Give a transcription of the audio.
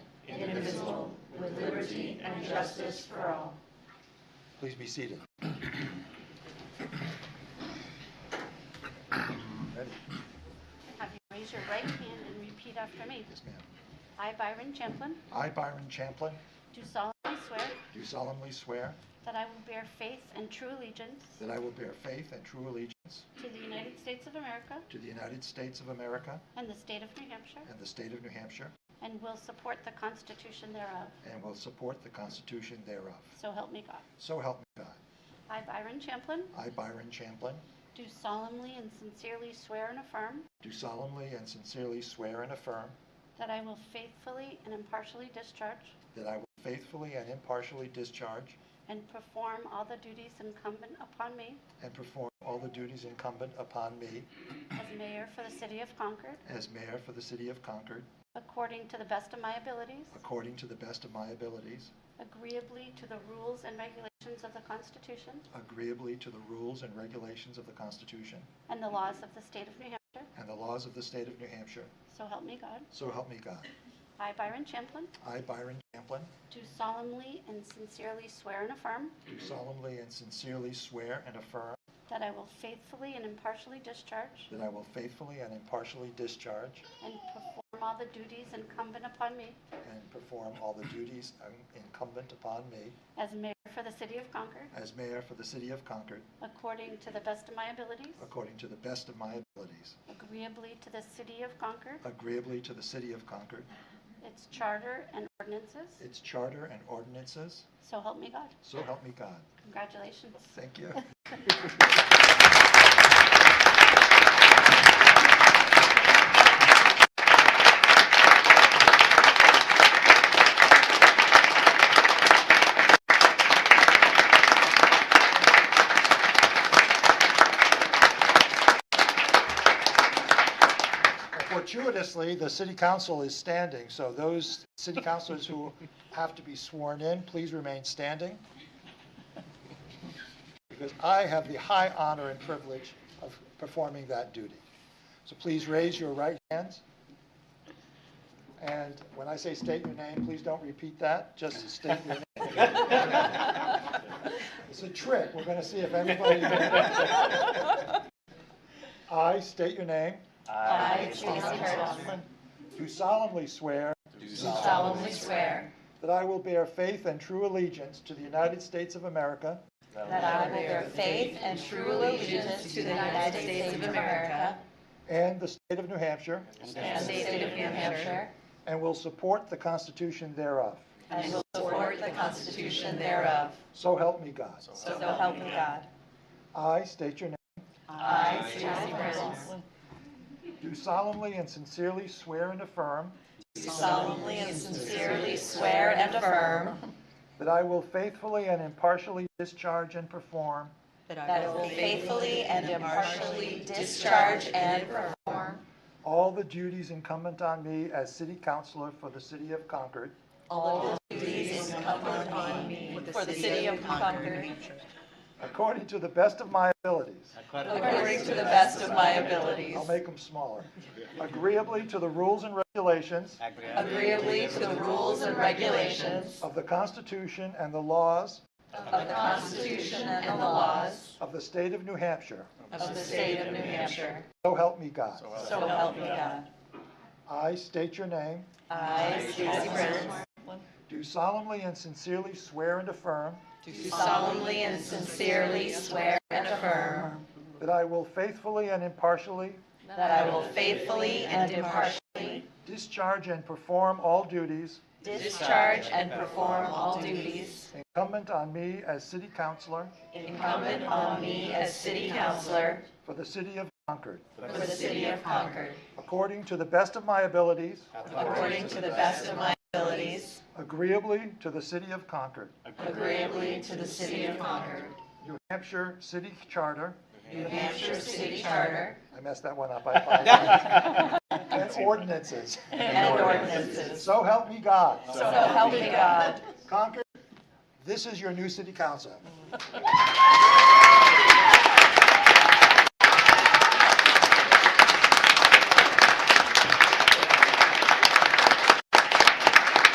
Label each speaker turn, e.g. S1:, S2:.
S1: indivisible, with liberty and justice for all.
S2: Please be seated. Ready?
S3: Have you raise your right hand and repeat after me?
S2: Yes, ma'am.
S3: I, Byron Champlin,
S2: I, Byron Champlin,
S3: do solemnly swear
S2: do solemnly swear
S3: that I will bear faith and true allegiance
S2: that I will bear faith and true allegiance
S3: to the United States of America
S2: to the United States of America
S3: and the state of New Hampshire,
S2: and the state of New Hampshire,
S3: and will support the Constitution thereof.
S2: and will support the Constitution thereof.
S3: So help me God.
S2: So help me God.
S3: I, Byron Champlin,
S2: I, Byron Champlin,
S3: do solemnly and sincerely swear and affirm
S2: do solemnly and sincerely swear and affirm
S3: that I will faithfully and impartially discharge
S2: that I will faithfully and impartially discharge
S3: and perform all the duties incumbent upon me
S2: and perform all the duties incumbent upon me
S3: as mayor for the city of Concord,
S2: as mayor for the city of Concord,
S3: according to the best of my abilities,
S2: according to the best of my abilities,
S3: agreeably to the rules and regulations of the Constitution
S2: agreeably to the rules and regulations of the Constitution
S3: and the laws of the state of New Hampshire,
S2: and the laws of the state of New Hampshire.
S3: so help me God.
S2: So help me God.
S3: I, Byron Champlin,
S2: I, Byron Champlin,
S3: do solemnly and sincerely swear and affirm
S2: do solemnly and sincerely swear and affirm
S3: that I will faithfully and impartially discharge
S2: that I will faithfully and impartially discharge
S3: and perform all the duties incumbent upon me
S2: and perform all the duties incumbent upon me
S3: as mayor for the city of Concord,
S2: as mayor for the city of Concord,
S3: according to the best of my abilities,
S2: according to the best of my abilities,
S3: agreeably to the city of Concord,
S2: agreeably to the city of Concord,
S3: its charter and ordinances,
S2: its charter and ordinances.
S3: so help me God.
S2: So help me God.
S3: Congratulations.
S2: Thank you. Fortuitously, the city council is standing, so those city councilors who have to be sworn in, please remain standing because I have the high honor and privilege of performing that duty. So please raise your right hands. And when I say state your name, please don't repeat that, just state your name. It's a trick, we're going to see if everybody. I state your name.
S1: I, Teresa Turtle,
S2: Do solemnly swear
S1: solemnly swear
S2: that I will bear faith and true allegiance to the United States of America
S1: that I will bear faith and true allegiance to the United States of America
S2: and the state of New Hampshire,
S1: and the state of New Hampshire,
S2: and will support the Constitution thereof.
S1: and will support the Constitution thereof.
S2: So help me God.
S1: So help me God.
S2: I state your name.
S1: I, Susie Reynolds,
S2: Do solemnly and sincerely swear and affirm
S1: solemnly and sincerely swear and affirm
S2: that I will faithfully and impartially discharge and perform
S1: that I will faithfully and impartially discharge and perform
S2: all the duties incumbent on me as city councilor for the city of Concord,
S1: all the duties incumbent on me for the city of Concord
S2: according to the best of my abilities.
S1: according to the best of my abilities,
S2: I'll make them smaller. Agreeably to the rules and regulations
S1: agreeably to the rules and regulations
S2: of the Constitution and the laws
S1: of the Constitution and the laws
S2: of the state of New Hampshire.
S1: of the state of New Hampshire.
S2: So help me God.
S1: So help me God.
S2: I state your name.
S1: I, Susie Reynolds,
S2: Do solemnly and sincerely swear and affirm
S1: do solemnly and sincerely swear and affirm
S2: that I will faithfully and impartially
S1: That I will faithfully and impartially
S2: Discharge and perform all duties
S1: discharge and perform all duties
S2: incumbent on me as city councilor
S1: incumbent on me as city councillor
S2: for the city of Concord,
S1: for the city of Concord,
S2: according to the best of my abilities,
S1: according to the best of my abilities,
S2: agreeably to the city of Concord,
S1: agreeably to the city of Concord,
S2: New Hampshire City Charter,
S1: New Hampshire City Charter,
S2: I messed that one up, I apologize, and ordinances.
S1: and ordinances.
S2: So help me God.
S1: So help me God.
S2: Concord, this is your new city council.